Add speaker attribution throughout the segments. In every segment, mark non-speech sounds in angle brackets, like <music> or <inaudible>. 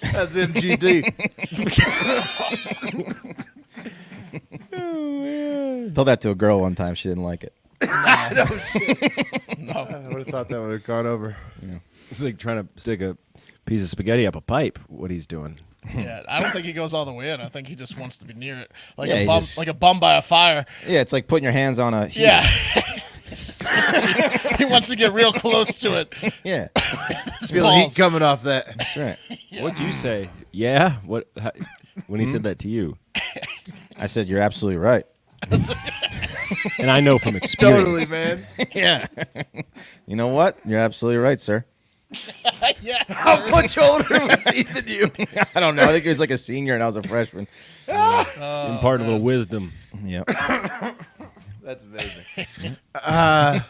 Speaker 1: That's <laughs> MGD.
Speaker 2: Told that to a girl one time. She didn't like it.
Speaker 1: I would have thought that would have gone over.
Speaker 3: It's like trying to stick a piece of spaghetti up a pipe. What he's doing.
Speaker 2: <clears throat>
Speaker 4: Yeah, I don't think he goes all the way in. I think he just wants to be near it, like
Speaker 2: Yeah,
Speaker 4: a
Speaker 2: he
Speaker 4: bum,
Speaker 2: just-
Speaker 4: like a bum by a fire.
Speaker 2: Yeah, it's like putting your hands on a heater.
Speaker 4: Yeah, <laughs> he wants to get real close to
Speaker 2: <laughs>
Speaker 4: it.
Speaker 2: yeah.
Speaker 4: His
Speaker 1: Feel the heat
Speaker 4: balls.
Speaker 1: coming off that.
Speaker 2: That's right.
Speaker 3: What'd you say? Yeah. What? <laughs> How, when he
Speaker 1: Hmm?
Speaker 3: said that to you,
Speaker 2: I said you're absolutely right.
Speaker 3: and I
Speaker 1: <laughs>
Speaker 3: know from experience.
Speaker 1: Totally, man.
Speaker 2: Yeah. <laughs> you know what? You're absolutely right, sir.
Speaker 4: <laughs> yeah,
Speaker 1: <laughs> How much older was he than you?
Speaker 2: <laughs> I don't know. I think he was like a senior and I was a <laughs> freshman.
Speaker 3: Impart
Speaker 1: Oh,
Speaker 3: a little wisdom.
Speaker 2: Yeah.
Speaker 1: That's amazing. uh,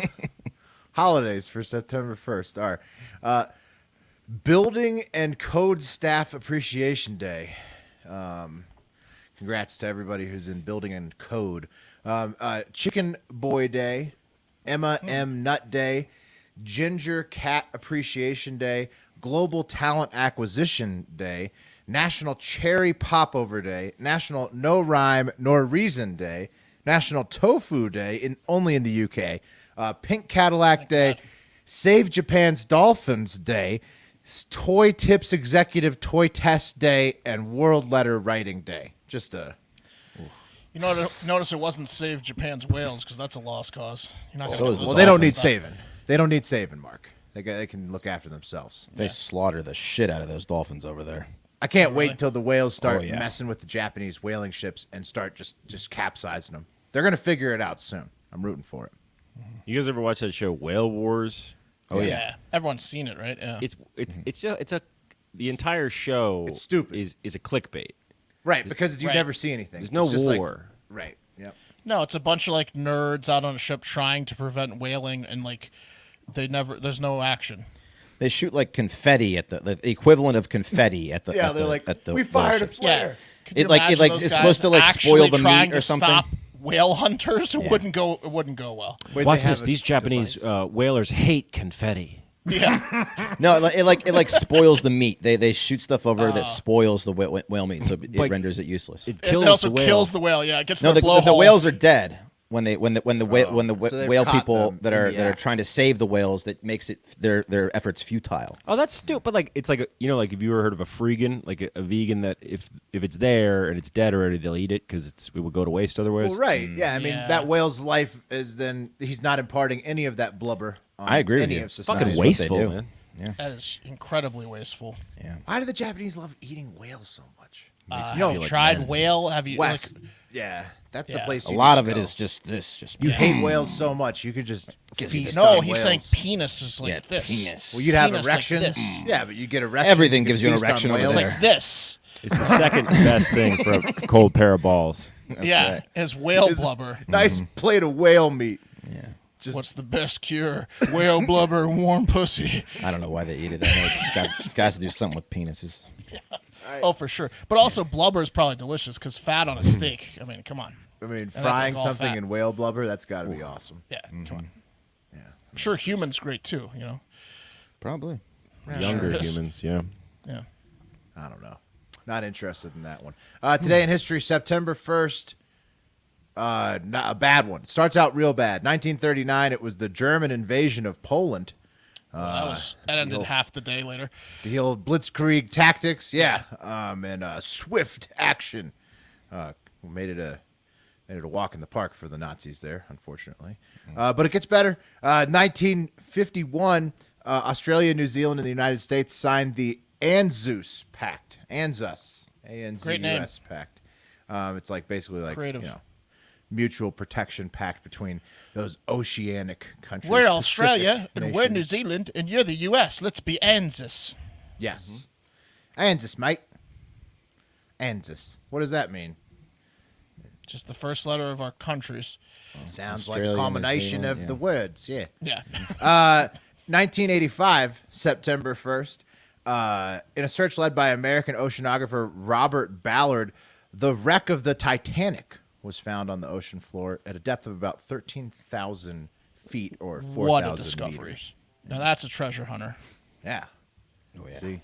Speaker 1: holidays for September 1st are uh, Building and Code Staff Appreciation Day. Um, congrats to everybody who's in Building and Code. Um, uh, Chicken Boy Day, Emma M. Nut Day, Ginger Cat Appreciation Day, Global Talent Acquisition Day, National Cherry Popover Day, National No Rhyme Nor Reason Day, National Tofu Day, in only in the UK, uh, Pink Cadillac Day, Save Japan's Dolphins Day, s- Toy Tips Executive Toy Test Day, and World Letter Writing Day. Just a
Speaker 4: you know, notice it wasn't save Japan's whales because that's a lost cause. You're not
Speaker 2: So
Speaker 4: gonna
Speaker 2: is
Speaker 4: get
Speaker 2: the
Speaker 1: well,
Speaker 4: those
Speaker 1: they
Speaker 2: Dolphins.
Speaker 1: don't
Speaker 4: dolphins
Speaker 1: need
Speaker 4: up.
Speaker 1: saving. They don't need saving, Mark. They ca- they can look after themselves.
Speaker 2: They slaughter the shit out of those dolphins over there.
Speaker 1: I can't wait until the whales start
Speaker 2: Oh, yeah.
Speaker 1: messing with the Japanese whaling ships and start just just capsizing them. They're gonna figure it out soon. I'm rooting for it.
Speaker 3: You guys ever watch that show Whale Wars?
Speaker 2: Oh yeah.
Speaker 4: everyone's seen it, right? Yeah,
Speaker 3: It's it's it's a, it's a the entire show.
Speaker 1: Mm-hmm. It's stupid.
Speaker 3: Is is a clickbait.
Speaker 1: Right, because you
Speaker 4: Right.
Speaker 1: never see anything.
Speaker 3: There's no
Speaker 1: It's just like-
Speaker 3: war.
Speaker 1: right. Yep.
Speaker 4: no, it's a bunch of like nerds out on a ship trying to prevent whaling, and like they never, there's no action.
Speaker 2: They shoot like confetti at the, the equivalent of confetti at the at the, at the whale ships.
Speaker 4: Yeah. Could
Speaker 2: It
Speaker 4: you
Speaker 2: like- it
Speaker 4: imagine
Speaker 2: like
Speaker 4: those
Speaker 2: it's
Speaker 4: guys
Speaker 2: supposed to, like,
Speaker 4: actually
Speaker 2: spoil the meat
Speaker 4: trying
Speaker 2: or
Speaker 4: to
Speaker 2: something?
Speaker 4: Stop whale hunters it wouldn't go. It wouldn't
Speaker 2: <laughs>
Speaker 4: go well.
Speaker 1: Wait,
Speaker 3: Watch
Speaker 1: they
Speaker 3: this.
Speaker 1: have a
Speaker 3: These Japanese
Speaker 1: device?
Speaker 3: uh, whalers hate confetti.
Speaker 4: Yeah,
Speaker 2: No, it, like- it like it like spoils the meat. They they shoot stuff over <laughs> that spoils the whale, whale meat, so it
Speaker 3: Like-
Speaker 2: renders it useless.
Speaker 3: It
Speaker 4: it
Speaker 3: kills
Speaker 4: also
Speaker 3: the whale.
Speaker 4: kills the whale. Yeah, it gets
Speaker 2: no,
Speaker 4: the,
Speaker 2: the, the, the
Speaker 4: blowhole.
Speaker 2: whales are dead when they when the when the whale
Speaker 1: Oh,
Speaker 2: when the wh-
Speaker 1: so they've
Speaker 2: whale
Speaker 1: caught
Speaker 2: people
Speaker 1: them
Speaker 2: that
Speaker 1: in
Speaker 2: are
Speaker 1: the
Speaker 2: that are
Speaker 1: act.
Speaker 2: trying to save the whales that makes it their their efforts futile.
Speaker 3: Oh, that's stupid. But like, it's like a, you know, like if you ever heard of a freegan, like a, a vegan that if if it's there and it's dead already, they'll eat it because it's it will go to waste otherwise.
Speaker 1: Well, right. Yeah. I mean,
Speaker 4: Yeah.
Speaker 1: that whale's life is then he's not imparting any of that blubber. On
Speaker 2: I agree with
Speaker 1: any
Speaker 2: you.
Speaker 1: Of
Speaker 2: Fucking
Speaker 1: society.
Speaker 3: Fucking
Speaker 2: what waste. they
Speaker 3: wasteful,
Speaker 2: do.
Speaker 3: man.
Speaker 4: That is incredibly wasteful.
Speaker 1: Why do the Japanese love eating whales so much?
Speaker 4: Uh,
Speaker 3: me
Speaker 4: you know,
Speaker 3: feel like
Speaker 4: tried
Speaker 3: men.
Speaker 4: whale? Have you
Speaker 1: West.
Speaker 4: like,
Speaker 1: yeah, that's the
Speaker 4: Yeah.
Speaker 1: place.
Speaker 2: A
Speaker 1: you
Speaker 2: lot
Speaker 1: need
Speaker 2: of
Speaker 1: to
Speaker 2: it
Speaker 1: go.
Speaker 2: is just this, just
Speaker 1: You hate whales so much you could just feast.
Speaker 4: No,
Speaker 1: on
Speaker 4: he's
Speaker 1: whales.
Speaker 4: saying penis is like
Speaker 2: Yeah,
Speaker 4: this.
Speaker 2: penis.
Speaker 1: Well, you'd have
Speaker 4: penis like
Speaker 1: erections. Mm.
Speaker 4: this.
Speaker 1: yeah, but you get erections.
Speaker 2: Everything
Speaker 1: could
Speaker 2: gives you an
Speaker 1: feast on
Speaker 2: erection over
Speaker 1: whales.
Speaker 4: It's
Speaker 2: There.
Speaker 4: like this.
Speaker 3: It's the second best thing for a cold pair of balls.
Speaker 4: yeah,
Speaker 2: right.
Speaker 4: his whale
Speaker 1: It's-
Speaker 4: blubber.
Speaker 1: Nice
Speaker 2: Mm-hmm.
Speaker 1: plate of whale meat.
Speaker 2: Yeah,
Speaker 1: Just
Speaker 4: What's the best cure? Whale blubber,
Speaker 1: <laughs>
Speaker 4: warm pussy.
Speaker 2: I don't know why they eat it. I know it's got it's got to do something with penises.
Speaker 4: Oh, for sure. But also, blubber is probably delicious because
Speaker 1: <laughs>
Speaker 4: fat on a steak. I mean, come on.
Speaker 1: I mean,
Speaker 4: like
Speaker 1: frying
Speaker 4: all
Speaker 1: something
Speaker 4: fat.
Speaker 1: in whale blubber, that's got to be awesome.
Speaker 4: Yeah, come on. I'm sure humans great too. You know.
Speaker 2: Probably.
Speaker 3: Younger
Speaker 4: Sure is.
Speaker 3: humans, yeah.
Speaker 4: Yeah.
Speaker 1: I don't know. Not interested in that one. Uh, today in history, September 1st, uh, not a bad one. Starts out real bad. 1939, it was the German invasion of Poland.
Speaker 4: Well, that was that ended
Speaker 1: you'll-
Speaker 4: half the day later.
Speaker 1: The old blitzkrieg tactics, yeah, um, and uh, swift action uh, made it a made it a walk in the park for the Nazis there, unfortunately.
Speaker 4: Mm.
Speaker 1: Uh, but it gets better. Uh, 1951, uh, Australia, New Zealand, and the United States signed the ANZUS Pact. ANZUS, A N Z
Speaker 4: Great
Speaker 1: U
Speaker 4: name.
Speaker 1: S Pact. Um, it's like basically like
Speaker 4: Creative.
Speaker 1: you know mutual protection pact between those oceanic countries.
Speaker 4: We're
Speaker 1: Pacific
Speaker 4: Australia and we're
Speaker 1: nations.
Speaker 4: New Zealand and you're the U.S. Let's be ANZUS.
Speaker 1: Yes. ANZUS, mate. ANZUS. What does that mean?
Speaker 4: Just the first letter of our countries.
Speaker 1: Sounds
Speaker 2: Australia,
Speaker 1: like
Speaker 2: New
Speaker 1: a combination
Speaker 2: Zealand,
Speaker 1: of
Speaker 2: yeah.
Speaker 1: the words, yeah.
Speaker 4: Yeah.
Speaker 1: Uh, 1985, September 1st, uh, in a search led by American oceanographer Robert Ballard, the wreck of the Titanic was found on the ocean floor at a depth of about 13,000 feet or
Speaker 4: what a
Speaker 1: 4,000
Speaker 4: discovery.
Speaker 1: meters.
Speaker 4: Now that's a treasure hunter.
Speaker 1: Yeah.
Speaker 2: Oh, yeah.
Speaker 1: See,